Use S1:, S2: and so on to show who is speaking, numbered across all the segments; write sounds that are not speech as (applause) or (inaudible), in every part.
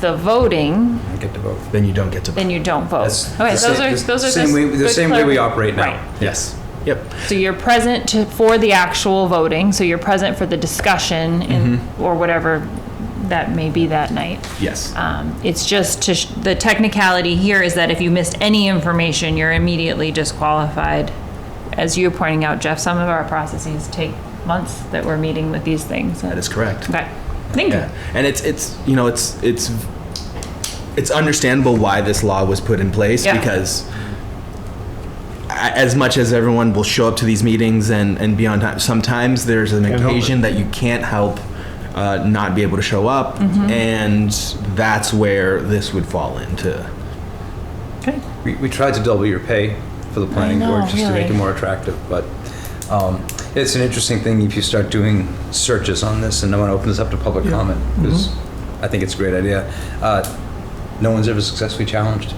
S1: the voting,
S2: You get to vote, then you don't get to vote.
S1: then you don't vote.
S2: That's the
S1: Oh. Okay, those
S2: same-
S1: are,
S2: the
S1: those are
S2: same
S1: just
S2: way- The
S1: good
S2: same way we
S1: clar-
S2: operate now.
S1: Right.
S2: Yes. Yep.
S1: So you're present to, for the actual voting, so you're present for the discussion
S2: Mm-hmm.
S1: and, or whatever that may be that night.
S2: Yes.
S1: Um, it's just to, sh- the technicality here is that if you missed any information, you're immediately disqualified. As you're pointing out, Jeff, some of our processes take months that we're meeting with these things.
S2: That is correct.
S1: Okay, thank you.
S2: Yeah. And it's it's you know it's it's it's understandable why this law was put in place
S1: Yeah.
S2: because a- as much as everyone will show up to these meetings and and be on time, sometimes there's an
S3: help it.
S2: occasion that you can't help uh, not be able to show up,
S1: Mm-hmm.
S2: and that's where this would fall into.
S1: Okay.
S3: We, we tried to double your pay for the planning
S1: know,
S3: board just to make it
S1: really.
S3: more attractive, but um, it's an interesting thing if you start doing searches on this and no one opens up to public comment, because
S1: Mm-hmm.
S3: I think it's a great idea. Uh, No one's ever successfully challenged.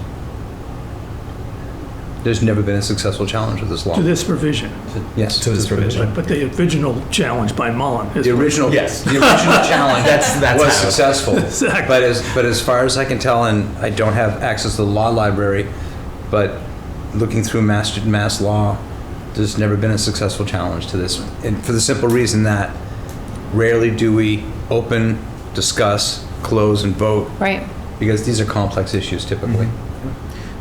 S3: There's never been a successful challenge with this law.
S4: to this provision,
S3: Yes.
S2: To this provision.
S4: but the original challenge by Mullen is.
S3: The original,
S2: Yes.
S3: the original challenge
S2: That's- that's
S3: was
S2: how- (laughs)
S3: successful.
S4: Exactly.
S3: But as, but as far as I can tell, and I don't have access to the law library, but looking through mass, mass law, there's never been a successful challenge to this. And for the simple reason that rarely do we open, discuss, close, and vote,
S1: Right.
S3: because these are complex issues typically.
S5: Mm-hmm.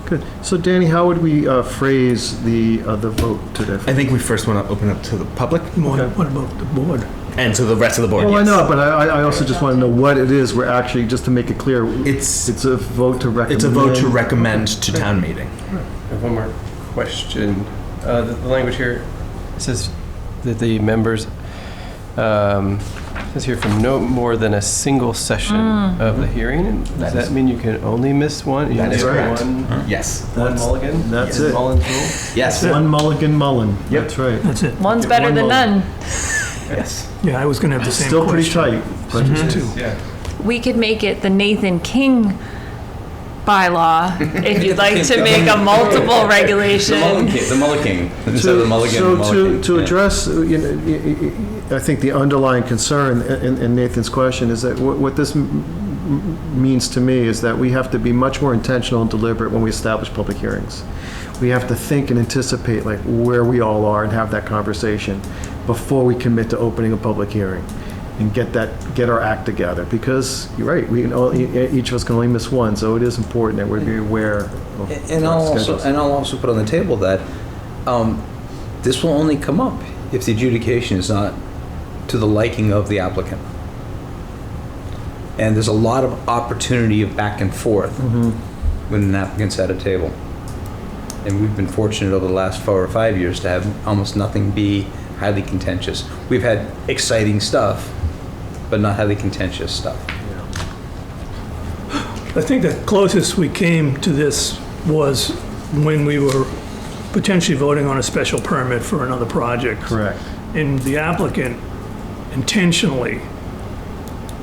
S5: Good. So Danny, how would we uh, phrase the, uh, the vote today?
S2: I think we first want to open up to the public
S4: What what about the board?
S2: and to the rest of the board.
S5: Well, I
S2: yes.
S5: know, but I, I- I also just want to know what it is we're actually, just to make it clear.
S2: It's-
S5: It's a vote to recommend.
S2: It's a vote to recommend to town meeting.
S6: I have one more question. Uh, The the language here says that the members, um, it says here from no more than a single session of the hearing. And Does
S2: Mm-hmm. That is-
S6: that mean you can only miss one? You
S2: That
S6: can
S2: is
S6: get
S2: correct.
S6: one-
S2: Yes.
S6: One
S5: That's-
S6: mulligan?
S5: that's
S6: Is
S5: it.
S6: Mullin's rule?
S2: Yes.
S5: One mulligan Mullen.
S2: Yep.
S5: That's right.
S4: That's it.
S1: One's
S5: Okay,
S1: better
S5: one
S1: than
S5: more.
S1: none.
S2: (laughs) Yes.
S4: Yeah, I was going to have the same
S5: Still pretty
S4: question.
S5: tight. but it's two.
S6: Yeah.
S1: We could make it the Nathan King bylaw if you'd like to make a multiple regulation.
S3: King, the Mullen King,
S5: To- So to, to address, uh, you know, y- y- y- I think the underlying concern i- in in Nathan's question is that what what this m- m- means to me is that we have to be much more intentional and deliberate when we establish public hearings. We have to think and anticipate like where we all are and have that conversation before we commit to opening a public hearing and get that, get our act together. Because, you're right, we, can all- e- each of us can only miss one, so it is important that we be aware of.
S3: And I'll also, and I'll also put on the table that um, this will only come up if the adjudication is not to the liking of the applicant. And there's a lot of opportunity of back and forth when an applicant's at a table. And we've been fortunate over the last four or five years to have almost nothing be highly contentious. We've had exciting stuff, but not highly contentious stuff.
S4: I think the closest we came to this was when we were potentially voting on a special permit for another project.
S5: Correct.
S4: And the applicant intentionally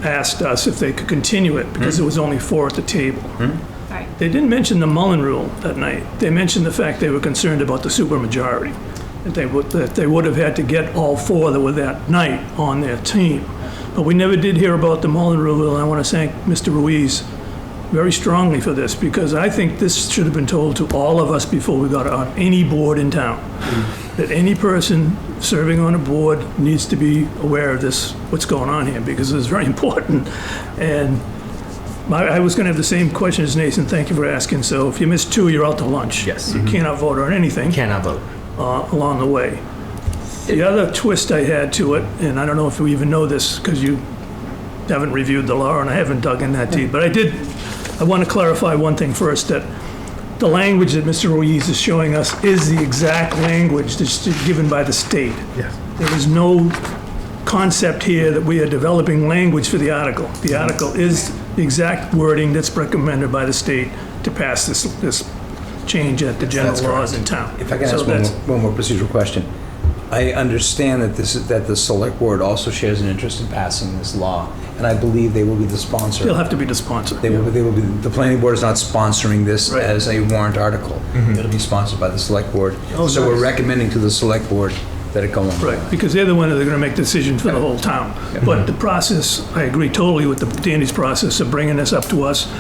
S4: asked us if they could continue it because there was only four at the table.
S1: Right.
S4: They didn't mention the Mullen Rule that night. They mentioned the fact they were concerned about the supermajority, that they would, that they would have had to get all four that were that night on their team. But we never did hear about the Mullen Rule, and I want to thank Mr. Ruiz very strongly for this, because I think this should have been told to all of us before we got on any board in town, that any person serving on a board needs to be aware of this, what's going on here, because it's very (laughs) important. And my, I was going to have the same question as Nathan. Thank you for asking. So if you miss two, you're out to lunch.
S2: Yes.
S4: You cannot vote on anything
S2: Cannot vote.
S4: uh, along the way. The other twist I had to it, and I don't know if you even know this because you haven't reviewed the law and I haven't dug in that deep, but I did, I want to clarify one thing first, that the language that Mr. Ruiz is showing us is the exact language that's given by the state.
S5: Yes.
S4: There is no concept here that we are developing language for the article. The article is the exact wording that's recommended by the state to pass this, this change at the general laws in town.
S3: If I can
S4: So
S3: ask one
S4: that's-
S3: more, one more procedural question. I understand that this is, that the select board also shares an interest in passing this law, and I believe they will be the
S4: They'll
S3: sponsor.
S4: have to be the sponsor.
S3: They will, be- they will be, the planning board is not sponsoring this
S4: Right. Mm-hmm.
S3: as a warrant article. It'll be sponsored by the select board.
S5: Oh,
S3: So we're
S5: nice.
S3: recommending to the select board that it go on.
S4: Right, because they're the one that are gonna make decisions for the whole town. But the process, I agree totally with the Danny's process of bringing this up to us,